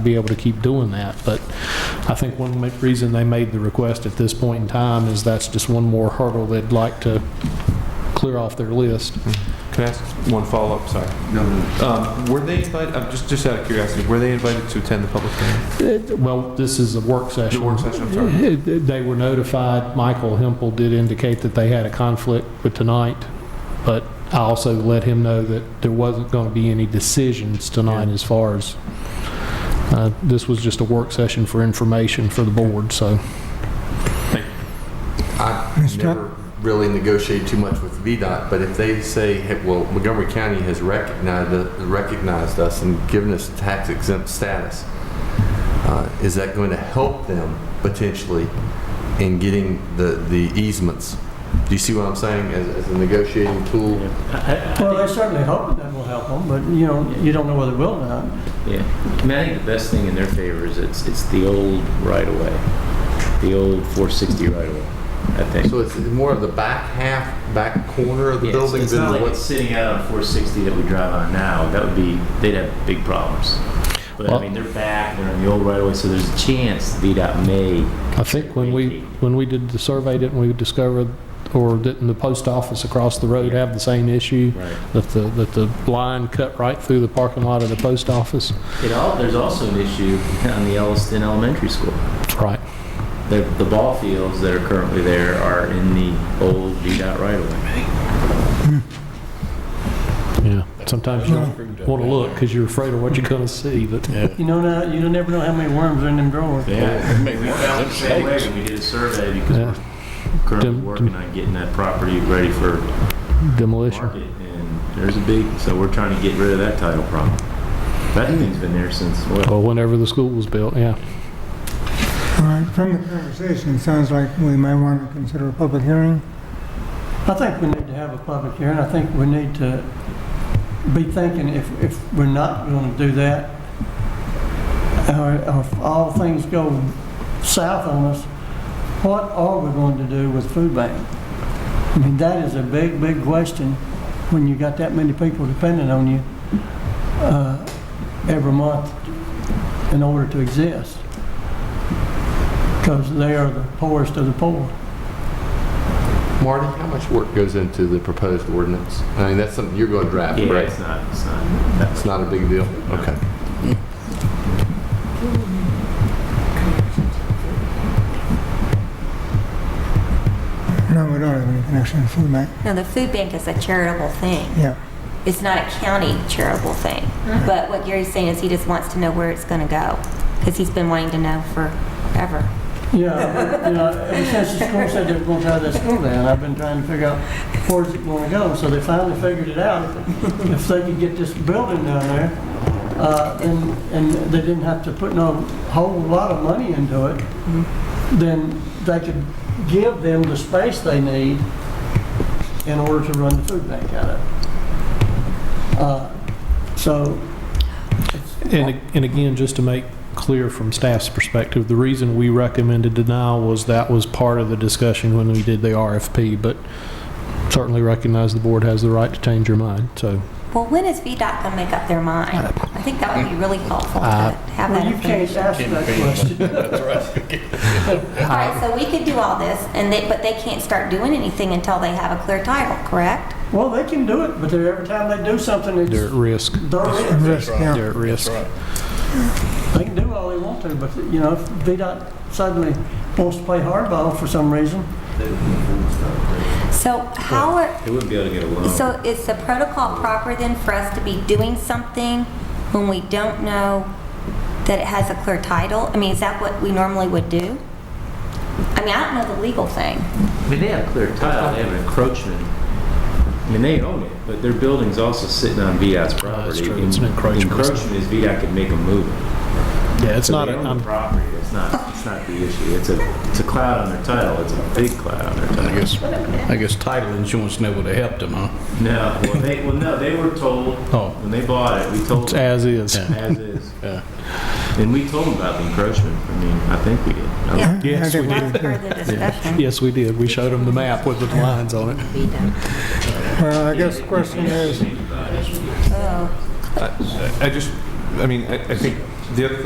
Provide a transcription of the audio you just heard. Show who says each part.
Speaker 1: be able to keep doing that. But I think one ma- reason they made the request at this point in time is that's just one more hurdle they'd like to clear off their list.
Speaker 2: Can I ask one follow-up? Sorry.
Speaker 3: No, no.
Speaker 2: Um, Were they invited, I'm just, just out of curiosity, were they invited to attend the public hearing?
Speaker 1: It- Well, this is a work
Speaker 2: The
Speaker 1: session.
Speaker 2: work session, I'm sorry.
Speaker 1: Eh, They were notified, Michael Hempel did indicate that they had a conflict with tonight, but I also let him know that there wasn't going to be any decisions tonight
Speaker 2: Yeah.
Speaker 1: as far as, uh, this was just a work session for information for the board, so.
Speaker 3: I never really negotiate too much with VDOT, but if they say, hey, well, Montgomery County has recognized, recognized us and given us tax exempt status, uh, is that going to help them potentially in getting the, the easements? Do you see what I'm saying, as, as a negotiating tool?
Speaker 4: Well, they're certainly hoping that will help them, but you know, you don't know whether it will or not.
Speaker 5: Yeah, I mean, I think the best thing in their favor is it's, it's the old right-of-way, the old 460 right-of-way, I think.
Speaker 3: So it's more of the back half, back corner of the
Speaker 5: Yeah, so
Speaker 3: building
Speaker 5: It's not
Speaker 3: than
Speaker 5: like it's
Speaker 3: what's...
Speaker 5: sitting out on 460 that we drive on now, that would be, they'd have big problems. But I
Speaker 1: Well-
Speaker 5: mean, they're back, they're on the old right-of-way, so there's a chance VDOT may.
Speaker 1: I think when we, when we did the survey, didn't we discover, or didn't the post office across the road have the same issue?
Speaker 5: Right.
Speaker 1: That the, that the line cut right through the parking lot of the post office?
Speaker 5: It all, there's also an issue on the Elliston Elementary School.
Speaker 1: Right.
Speaker 5: The, the ball fields that are currently there are in the old VDOT right-of-way.
Speaker 1: Yeah, sometimes you don't want to look because you're afraid of what you're going to see, but
Speaker 4: You know, now you never know how many worms are in them drawers.
Speaker 5: Yeah, we found the same way when we did a survey because
Speaker 1: Yeah.
Speaker 5: we're currently
Speaker 1: Dem-
Speaker 5: working on getting that property ready for
Speaker 1: demolition.
Speaker 5: market. And there's a big, so we're trying to get rid of that title problem. That thing's been there since, well,
Speaker 1: Well, whenever the school was built, yeah.
Speaker 6: All right, from the conversation, it sounds like we may want to consider a public hearing.
Speaker 4: I think we need to have a public hearing. I think we need to be thinking if, if we're not going to do that, or or if all things go south on us, what are we going to do with food bank? I mean, that is a big, big question when you got that many people depending on you uh, every month in order to exist. Because they are the poorest of the poor.
Speaker 3: Marty, how much work goes into the proposed ordinance? I mean, that's something you're going to draft,
Speaker 5: yeah,
Speaker 3: right?
Speaker 5: it's not, it's not.
Speaker 3: It's not a big deal? Okay.
Speaker 6: No, we don't have any connection to food bank.
Speaker 7: No, the food bank is a charitable thing.
Speaker 6: Yeah,
Speaker 7: It's not a county charitable thing.
Speaker 4: Mm-hmm.
Speaker 7: But what Gary's saying is he just wants to know where it's going to go, because he's been wanting to know forever.
Speaker 4: Yeah, but, you know, ever since the school said they were gonna tear that school down, I've been trying to figure out where's it gonna go, so they finally figured it out. If they could get this building down there, uh, and, and they didn't have to put no whole lot of money into it, then they could give them the space they need in order to run the food bank out of. Uh, So,
Speaker 1: And, and again, just to make clear from staff's perspective, the reason we recommended denial was that was part of the discussion when we did the RFP, but certainly recognize the board has the right to change your mind, so.
Speaker 7: Well, when is VDOT going to make up their mind? I think that would be really helpful to
Speaker 1: Uh,
Speaker 7: have that
Speaker 4: well, you can't
Speaker 7: information.
Speaker 4: ask that question.
Speaker 7: All right, so we could do all this, and they, but they can't start doing anything until they have a clear title, correct?
Speaker 4: Well, they can do it, but they're- every time they do something, it's,
Speaker 1: They're at risk.
Speaker 4: they're in.
Speaker 6: and risk, yeah.
Speaker 1: They're at risk.
Speaker 4: They can do all they want to, but, you know, if VDOT suddenly wants to play hardball for some reason,
Speaker 7: So how are,
Speaker 5: They wouldn't be able to get a loan.
Speaker 7: So is the protocol proper then for us to be doing something when we don't know that it has a clear title? I mean, is that what we normally would do? I mean, I don't know the legal thing.
Speaker 5: I mean, they have clear title, they have an encroachment. I mean, they own it, but their building's also sitting on VDOT's property.
Speaker 1: true, it's an
Speaker 5: And
Speaker 1: encroachment.
Speaker 5: Encroachment is VDOT could make them move it.
Speaker 1: Yeah, it's
Speaker 5: So
Speaker 1: not,
Speaker 5: they
Speaker 1: a-
Speaker 5: own the
Speaker 1: I'm-
Speaker 5: property, it's not, it's not the issue, it's a, it's a cloud on their title, it's a big cloud on their title.
Speaker 8: I guess, I guess title insurance never would have helped them, huh?
Speaker 5: No, well, they, well, no, they were told,
Speaker 8: Oh.
Speaker 5: when they bought it, we told
Speaker 1: it's
Speaker 5: them
Speaker 1: as is.
Speaker 5: as is.
Speaker 8: Yeah.
Speaker 5: And we told them about the encroachment, I mean, I think we did. I don't-
Speaker 7: Yeah.
Speaker 6: I
Speaker 1: Yes,
Speaker 6: think
Speaker 1: we
Speaker 6: we
Speaker 1: did.
Speaker 6: do, too.
Speaker 7: Further discussion.
Speaker 1: Yes, we did. We showed them the map with the lines on it.
Speaker 6: Well, I guess the question is,
Speaker 7: Oh.
Speaker 2: I I just, I mean, I I think the other